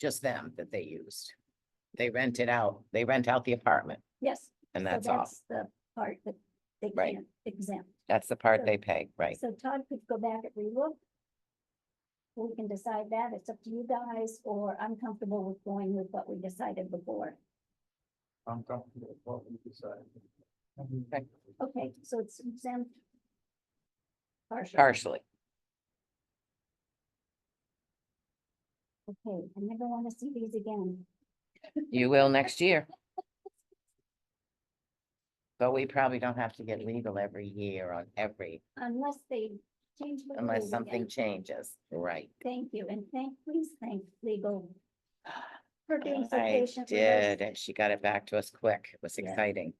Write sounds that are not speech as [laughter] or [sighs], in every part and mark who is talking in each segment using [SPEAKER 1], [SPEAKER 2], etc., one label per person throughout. [SPEAKER 1] just them that they used. They rent it out, they rent out the apartment
[SPEAKER 2] Yes.
[SPEAKER 1] and
[SPEAKER 2] so
[SPEAKER 1] that's all.
[SPEAKER 2] The part that they
[SPEAKER 1] Right.
[SPEAKER 2] can't exempt.
[SPEAKER 1] That's the part
[SPEAKER 2] so-
[SPEAKER 1] they pay, right?
[SPEAKER 2] So Todd could go back and relook. We can decide that. It's up to you guys, or I'm comfortable with going with what we decided before.
[SPEAKER 3] I'm comfortable with what we decided.
[SPEAKER 1] Okay.
[SPEAKER 2] Okay, so it's exempt. Partial.
[SPEAKER 1] Partially.
[SPEAKER 2] Okay, I never want to see these again.
[SPEAKER 1] You
[SPEAKER 2] [laughs]
[SPEAKER 1] will next year. But we probably don't have to get legal every year on every,
[SPEAKER 2] Unless they change. what it
[SPEAKER 1] unless
[SPEAKER 2] is again.
[SPEAKER 1] something changes, right?
[SPEAKER 2] Thank you, and thank, please thank legal
[SPEAKER 1] [sighs]
[SPEAKER 2] for being so
[SPEAKER 1] I
[SPEAKER 2] patient. with us.
[SPEAKER 1] did, and she got it back to us quick. It was
[SPEAKER 2] Yeah.
[SPEAKER 1] exciting.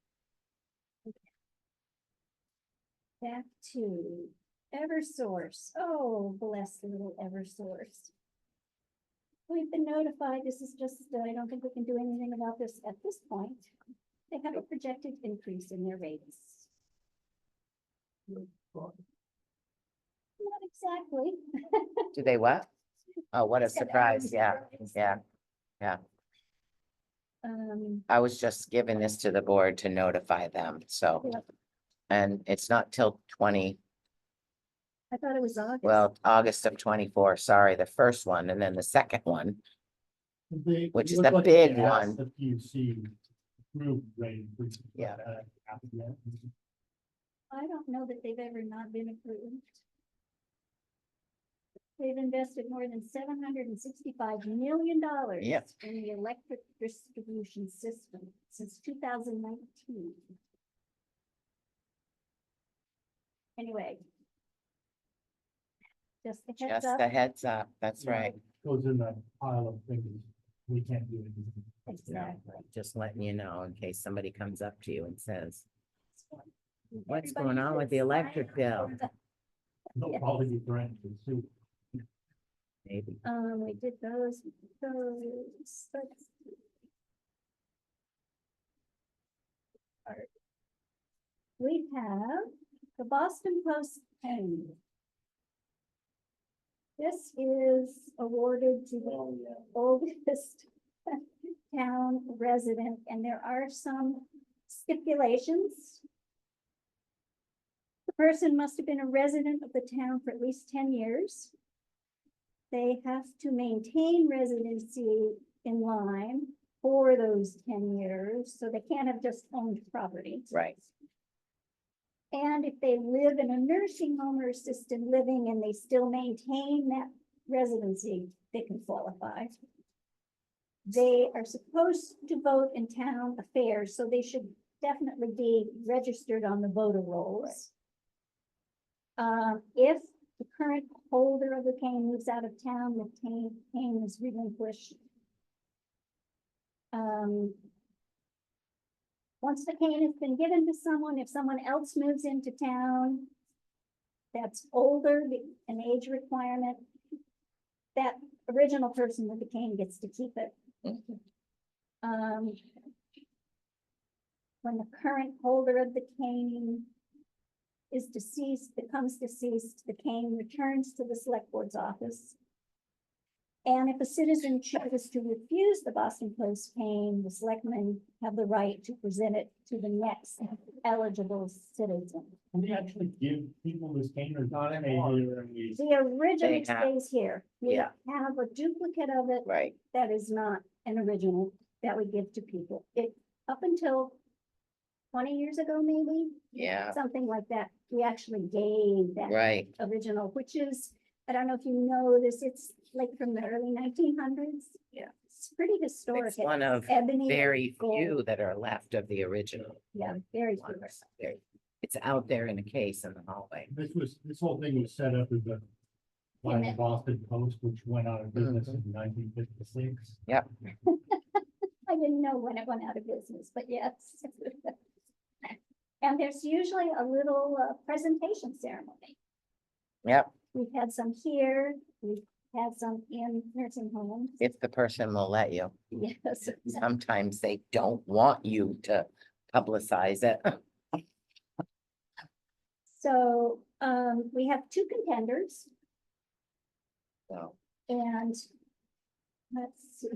[SPEAKER 2] Back to Eversource. Oh, bless the little Eversource. We've been notified. This is just, uh, I don't think we can do anything about this at this point. They have a projected increase in their rates. Not exactly.
[SPEAKER 1] Do they what? Oh, what a
[SPEAKER 2] Said
[SPEAKER 1] surprise,
[SPEAKER 2] Eversource.
[SPEAKER 1] yeah, yeah.
[SPEAKER 2] Um,
[SPEAKER 1] I was just giving this to the board to notify them, so.
[SPEAKER 2] Yep.
[SPEAKER 1] And it's not till twenty,
[SPEAKER 2] I thought it was August.
[SPEAKER 1] well, August of twenty-four, sorry, the first one, and then the second one.
[SPEAKER 3] They-
[SPEAKER 1] Which
[SPEAKER 3] it
[SPEAKER 1] is
[SPEAKER 3] looked
[SPEAKER 1] the
[SPEAKER 3] like they
[SPEAKER 1] big
[SPEAKER 3] asked
[SPEAKER 1] one.
[SPEAKER 3] The PUC group rate. which is
[SPEAKER 1] Yeah.
[SPEAKER 3] what, uh, happened yet.
[SPEAKER 2] I don't know that they've ever not been approved. They've invested more than seven hundred and sixty-five million dollars.
[SPEAKER 1] Yep.
[SPEAKER 2] In the electric distribution system since two thousand nineteen. Anyway. Just a heads
[SPEAKER 1] Just
[SPEAKER 2] up.
[SPEAKER 1] a heads up, that's
[SPEAKER 3] Yeah.
[SPEAKER 1] right.
[SPEAKER 3] Goes in that pile of things, we can't do anything.
[SPEAKER 1] No,
[SPEAKER 2] Exactly.
[SPEAKER 1] just letting you know in case somebody comes up to you and says,
[SPEAKER 2] Everybody
[SPEAKER 1] what's going on with the
[SPEAKER 2] should sign
[SPEAKER 1] electric
[SPEAKER 2] up.
[SPEAKER 1] bill?
[SPEAKER 3] No
[SPEAKER 2] Yeah.
[SPEAKER 3] quality grant, it's too.
[SPEAKER 1] Maybe.
[SPEAKER 2] Um, we did those, we did those, let's see. Alright. We have the Boston Post pen. This is awarded to the oldest [laughs] town resident, and there are some stipulations. The person must have been a resident of the town for at least ten years. They have to maintain residency in line for those ten years, so they can't have just owned property.
[SPEAKER 1] Right.
[SPEAKER 2] And if they live in a nursing home or assisted living and they still maintain that residency, they can qualify. They are supposed to vote in town affairs, so they should definitely be registered on the voter rolls. Um, if the current holder of the cane moves out of town, the cane, cane is relinquished. Um, once the cane has been given to someone, if someone else moves into town that's older, the- an age requirement, that original person with the cane gets to keep it. Um, when the current holder of the cane is deceased, becomes deceased, the cane returns to the select board's office. And if a citizen chooses to refuse the Boston Post cane, the selectmen have the right to present it to the next eligible citizen.
[SPEAKER 3] Can they actually give people this cane or not?
[SPEAKER 1] anymore.
[SPEAKER 2] The original
[SPEAKER 1] have-
[SPEAKER 2] stays here. We
[SPEAKER 1] Yeah.
[SPEAKER 2] Have a duplicate of it
[SPEAKER 1] Right,
[SPEAKER 2] that is not an original that we give to people. It, up until twenty years ago, maybe,
[SPEAKER 1] yeah,
[SPEAKER 2] something like that, we actually gave that
[SPEAKER 1] right,
[SPEAKER 2] original, which is, I don't know if you know this, it's like from the early nineteen hundreds.
[SPEAKER 1] Yeah.
[SPEAKER 2] It's pretty historic.
[SPEAKER 1] It's one of
[SPEAKER 2] Ebony.
[SPEAKER 1] very
[SPEAKER 2] gold.
[SPEAKER 1] few that are left of the original.
[SPEAKER 2] Yeah, very
[SPEAKER 1] ones.
[SPEAKER 2] few.
[SPEAKER 1] There- It's out there in a case in the hallway.
[SPEAKER 3] This was, this whole thing was set up as a by
[SPEAKER 2] And
[SPEAKER 3] the
[SPEAKER 2] it-
[SPEAKER 3] Boston Post, which went out of business
[SPEAKER 1] Mm-hmm.
[SPEAKER 3] in nineteen fifty-six.
[SPEAKER 2] I didn't know when it went out of business, but yes. [laughs] And there's usually a little uh, presentation ceremony.
[SPEAKER 1] Yep,
[SPEAKER 2] We've had some here, we've had some in nursing homes.
[SPEAKER 1] if the person will let you.
[SPEAKER 2] Yes.
[SPEAKER 1] [laughs] Sometimes they don't want you to publicize it. [laughs]
[SPEAKER 2] So, um, we have two contenders
[SPEAKER 1] So
[SPEAKER 2] and Let's see.